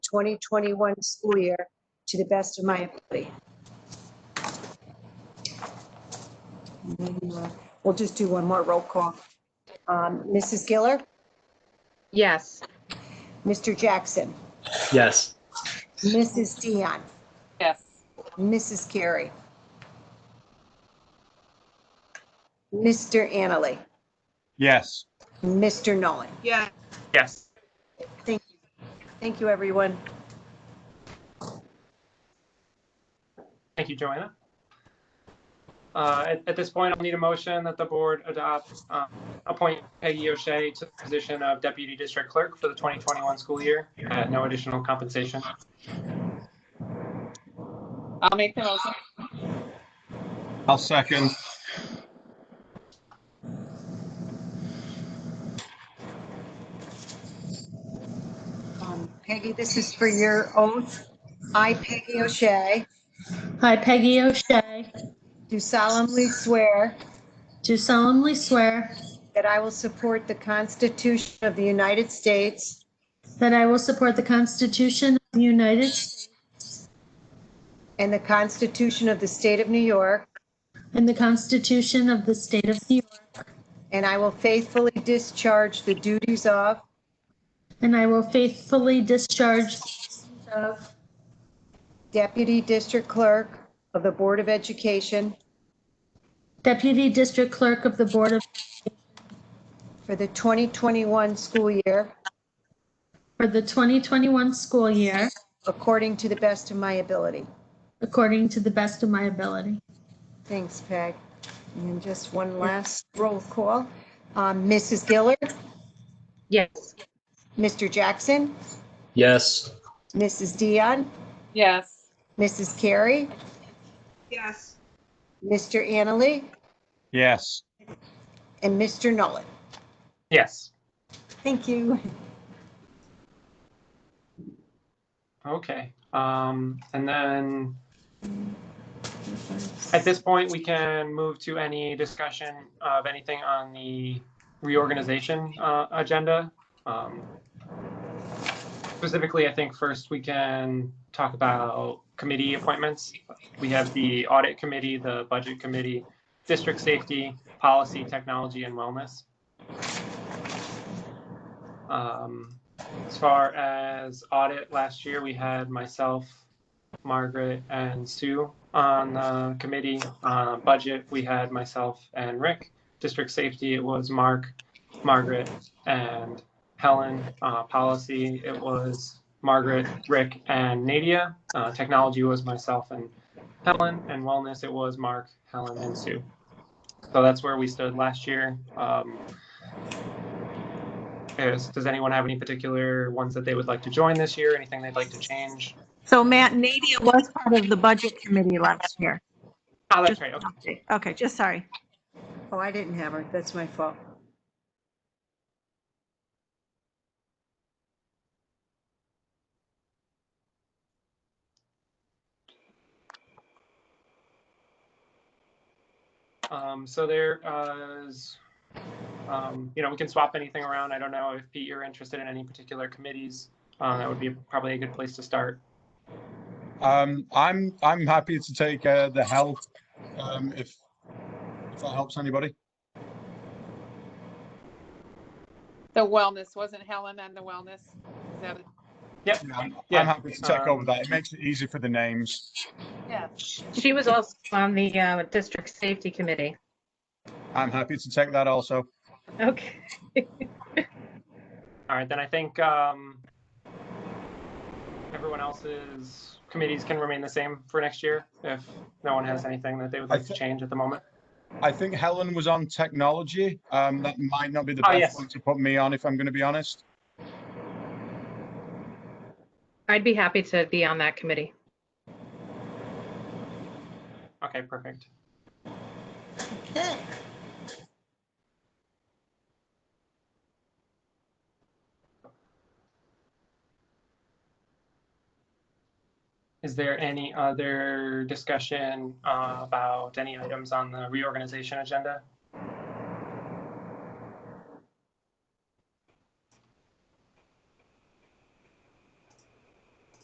2021 school year to the best of my ability. We'll just do one more roll call. Um, Mrs. Giller? Yes. Mr. Jackson? Yes. Mrs. Dion? Yes. Mrs. Carey? Mr. Annaly? Yes. Mr. Nolan? Yes. Yes. Thank you. Thank you, everyone. Thank you, Joanna. Uh, At at this point, I'll need a motion that the board adopt, um, appoint Peggy O'Shea to the position of Deputy District Clerk for the 2021 school year at no additional compensation. I'll make the motion. I'll second. Um, Peggy, this is for your oath. I, Peggy O'Shea, I, Peggy O'Shea, do solemnly swear do solemnly swear that I will support the Constitution of the United States that I will support the Constitution of the United States and the Constitution of the State of New York, and the Constitution of the State of New York, and I will faithfully discharge the duties of and I will faithfully discharge the duties of Deputy District Clerk of the Board of Education Deputy District Clerk of the Board of, for the 2021 school year for the 2021 school year, according to the best of my ability. according to the best of my ability. Thanks, Peg. And then just one last roll call. Um, Mrs. Gillard, Yes. Mr. Jackson, Yes. Mrs. Dion, Yes. Mrs. Carey, Yes. Mr. Annaly, Yes. and Mr. Nolan. Yes. Thank you. Okay, um, and then at this point, we can move to any discussion of anything on the reorganization, uh, agenda. Um, Specifically, I think first we can talk about committee appointments. We have the audit committee, the budget committee, district safety, policy, technology, and wellness. Um, as far as audit, last year we had myself, Margaret, and Sue on the committee. Uh, budget, we had myself and Rick. District safety, it was Mark, Margaret, and Helen. Uh, policy, it was Margaret, Rick, and Nadia. Uh, technology was myself and Helen, and wellness, it was Mark, Helen, and Sue. So that's where we stood last year. Um, is, does anyone have any particular ones that they would like to join this year? Anything they'd like to change? So Matt, Nadia was part of the budget committee last year. Oh, that's right. Okay. Okay, just sorry. Oh, I didn't have her. That's my fault. Um, so there uh, is, um, you know, we can swap anything around. I don't know if Pete, you're interested in any particular committees. Uh, that would be probably a good place to start. Um, I'm, I'm happy to take, uh, the health, um, if, if that helps anybody. The wellness, wasn't Helen on the wellness? Is that it? Yeah, I'm Yeah, I'm happy to take um, over that. It makes it easy for the names. She was also on the uh, District Safety Committee. I'm happy to take that also. Okay. All right, then I think, um, everyone else's committees can remain the same for next year if no one has anything that they would I like to thi- change at the moment. I think Helen was on technology. Um, that might not be the Oh, best yes. one to put me on, if I'm going to be honest. I'd be happy to be on that committee. Okay, perfect. Is there any other discussion uh, about any items on the reorganization agenda?